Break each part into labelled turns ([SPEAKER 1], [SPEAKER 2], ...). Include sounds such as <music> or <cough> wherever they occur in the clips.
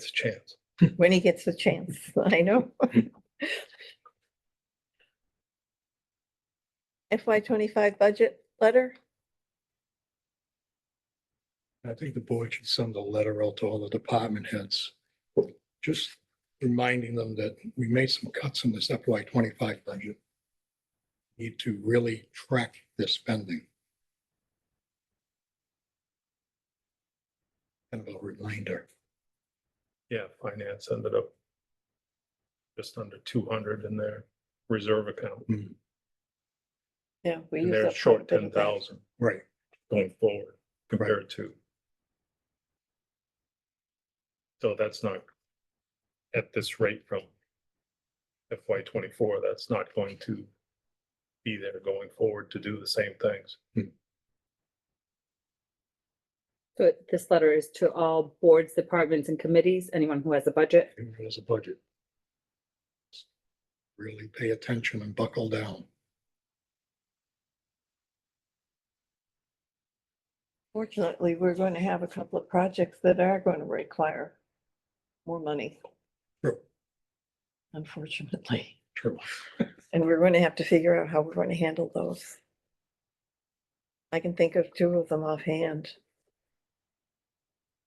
[SPEAKER 1] it's a chance.
[SPEAKER 2] when he gets the chance, <laughs> I know. FY twenty-five budget letter,
[SPEAKER 1] I think the board should send a letter out to all the department heads. Just reminding them that we made some cuts in this FY twenty-five budget. Need to really track their spending. Kind of a reminder.
[SPEAKER 3] Yeah, finance ended up just under two hundred in their reserve account.
[SPEAKER 2] yeah. we
[SPEAKER 3] And
[SPEAKER 2] use
[SPEAKER 3] they're
[SPEAKER 2] up quite a
[SPEAKER 3] short
[SPEAKER 2] bit
[SPEAKER 3] ten
[SPEAKER 2] of that.
[SPEAKER 3] thousand
[SPEAKER 1] Right.
[SPEAKER 3] going forward compared to. So that's not at this rate from FY twenty-four, that's not going to be there going forward to do the same things.
[SPEAKER 4] So this letter is to all boards, departments and committees, anyone who has a budget.
[SPEAKER 1] There's a budget. Really pay attention and buckle down.
[SPEAKER 2] Fortunately, we're going to have a couple of projects that are going to require more money.
[SPEAKER 1] True.
[SPEAKER 2] Unfortunately,
[SPEAKER 1] True.
[SPEAKER 2] and we're going to have to figure out how we're going to handle those. I can think of two of them offhand.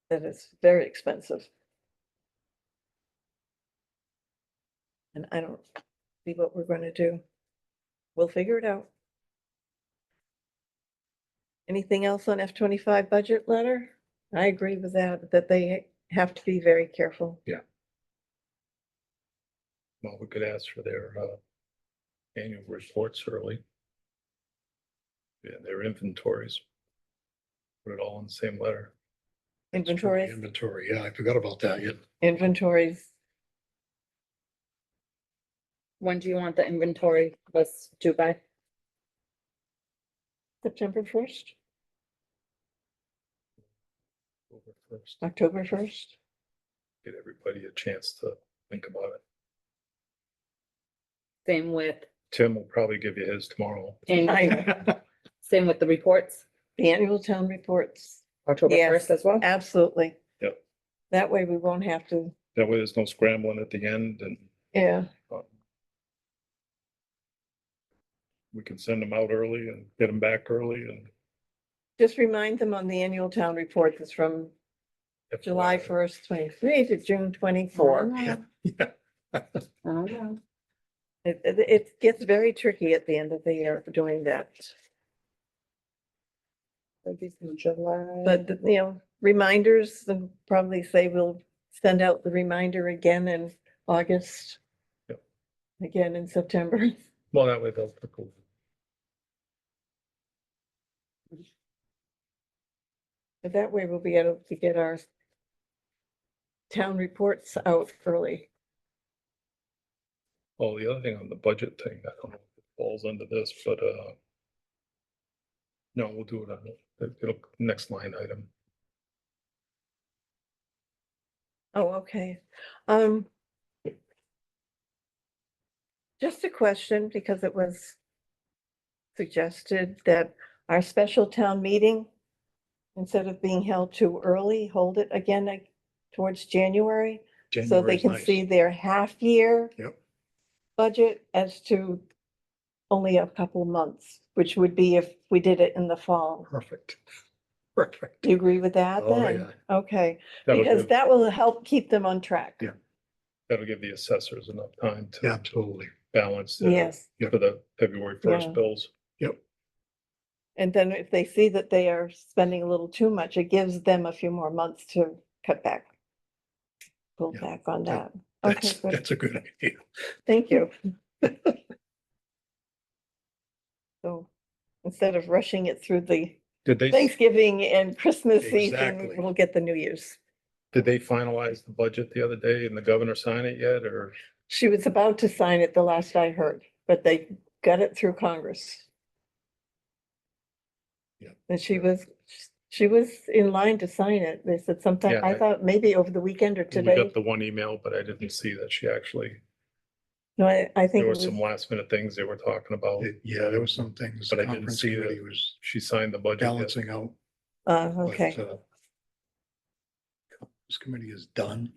[SPEAKER 2] That is very expensive. And I don't see what we're going to do. We'll figure it out. Anything else on F twenty-five budget letter? I agree with that, that they have to be very careful.
[SPEAKER 3] Well, we could ask for their uh annual reports early. Yeah, their inventories. Put it all in the same letter.
[SPEAKER 2] Inventories,
[SPEAKER 1] Inventory, yeah, I forgot about that. Yeah. <laughs>
[SPEAKER 2] inventories,
[SPEAKER 4] When do you want the inventory list due by?
[SPEAKER 2] September first,
[SPEAKER 3] over first,
[SPEAKER 2] October first.
[SPEAKER 3] Get everybody a chance to think about it.
[SPEAKER 4] Same with,
[SPEAKER 3] Tim will probably give you his tomorrow.
[SPEAKER 4] and same with the reports,
[SPEAKER 2] The <laughs> annual town reports,
[SPEAKER 4] October
[SPEAKER 2] Yes.
[SPEAKER 4] first as well?
[SPEAKER 2] absolutely.
[SPEAKER 3] Yep.
[SPEAKER 2] That way we won't have to,
[SPEAKER 3] That way there's no scrambling at the end and
[SPEAKER 2] yeah,
[SPEAKER 3] um, we can send them out early and get them back early and.
[SPEAKER 2] just remind them on the annual town report that's from July
[SPEAKER 3] FYI.
[SPEAKER 2] first, twenty-three to June twenty-four.
[SPEAKER 4] I don't know. I don't know.
[SPEAKER 2] It, it, it gets very tricky at the end of the year for doing that,
[SPEAKER 4] That'd be from July.
[SPEAKER 2] but, you know, reminders, and probably say we'll send out the reminder again in August.
[SPEAKER 3] Yep.
[SPEAKER 2] Again in September. <laughs>
[SPEAKER 3] Well, that way they'll.
[SPEAKER 2] But That way we'll be able to get our town reports out early.
[SPEAKER 3] Oh, the other thing on the budget thing, I don't know if it falls under this, but, uh, no, we'll do it on, it- it'll, next line item.
[SPEAKER 2] Oh, okay. Um. Just a question, because it was suggested that our special town meeting, instead of being held too early, hold it again like, towards January, so they
[SPEAKER 1] January's
[SPEAKER 2] can
[SPEAKER 1] nice.
[SPEAKER 2] see their half-year
[SPEAKER 1] Yep.
[SPEAKER 2] budget as to only a couple months, which would be if we did it in the fall.
[SPEAKER 1] Perfect. Perfect.
[SPEAKER 2] Do you agree with that
[SPEAKER 1] Oh,
[SPEAKER 2] then? Okay,
[SPEAKER 3] That'll
[SPEAKER 2] because
[SPEAKER 3] give-
[SPEAKER 2] that will help keep them on track.
[SPEAKER 1] Yeah.
[SPEAKER 3] That'll give the assessors enough time
[SPEAKER 1] yeah.
[SPEAKER 3] to
[SPEAKER 1] Absolutely.
[SPEAKER 3] balance their-
[SPEAKER 2] Yes,
[SPEAKER 3] for the February
[SPEAKER 2] Yeah.
[SPEAKER 3] first bills.
[SPEAKER 2] and then if they see that they are spending a little too much, it gives them a few more months to cut back. Pull
[SPEAKER 1] Yeah,
[SPEAKER 2] back on that.
[SPEAKER 1] that-
[SPEAKER 2] Okay,
[SPEAKER 1] That's,
[SPEAKER 2] good.
[SPEAKER 1] that's a good idea.
[SPEAKER 2] Thank you.
[SPEAKER 1] <laughs>
[SPEAKER 2] So instead of rushing it through the
[SPEAKER 3] Did they,
[SPEAKER 2] Thanksgiving and Christmas season,
[SPEAKER 1] Exactly.
[SPEAKER 2] we'll get the New Year's.
[SPEAKER 3] did they finalize the budget the other day and the governor sign it yet or?
[SPEAKER 2] She was about to sign it the last I heard, but they got it through Congress.
[SPEAKER 1] Yeah.
[SPEAKER 2] And she was, she was in line to sign it. They said sometime,
[SPEAKER 3] Yeah,
[SPEAKER 2] I
[SPEAKER 3] I-
[SPEAKER 2] thought maybe over the weekend or
[SPEAKER 3] We
[SPEAKER 2] today.
[SPEAKER 3] got the one email, but I didn't see that she actually,
[SPEAKER 2] No, I, I think it
[SPEAKER 3] there were
[SPEAKER 2] was,
[SPEAKER 3] some last minute things they were talking about.
[SPEAKER 1] It- Yeah, there was some things.
[SPEAKER 3] But I didn't
[SPEAKER 1] conference
[SPEAKER 3] see the
[SPEAKER 1] committee Was
[SPEAKER 3] She signed the budget. yet.
[SPEAKER 1] balancing out.
[SPEAKER 2] uh,
[SPEAKER 1] but,
[SPEAKER 2] okay,
[SPEAKER 1] uh, This committee is done.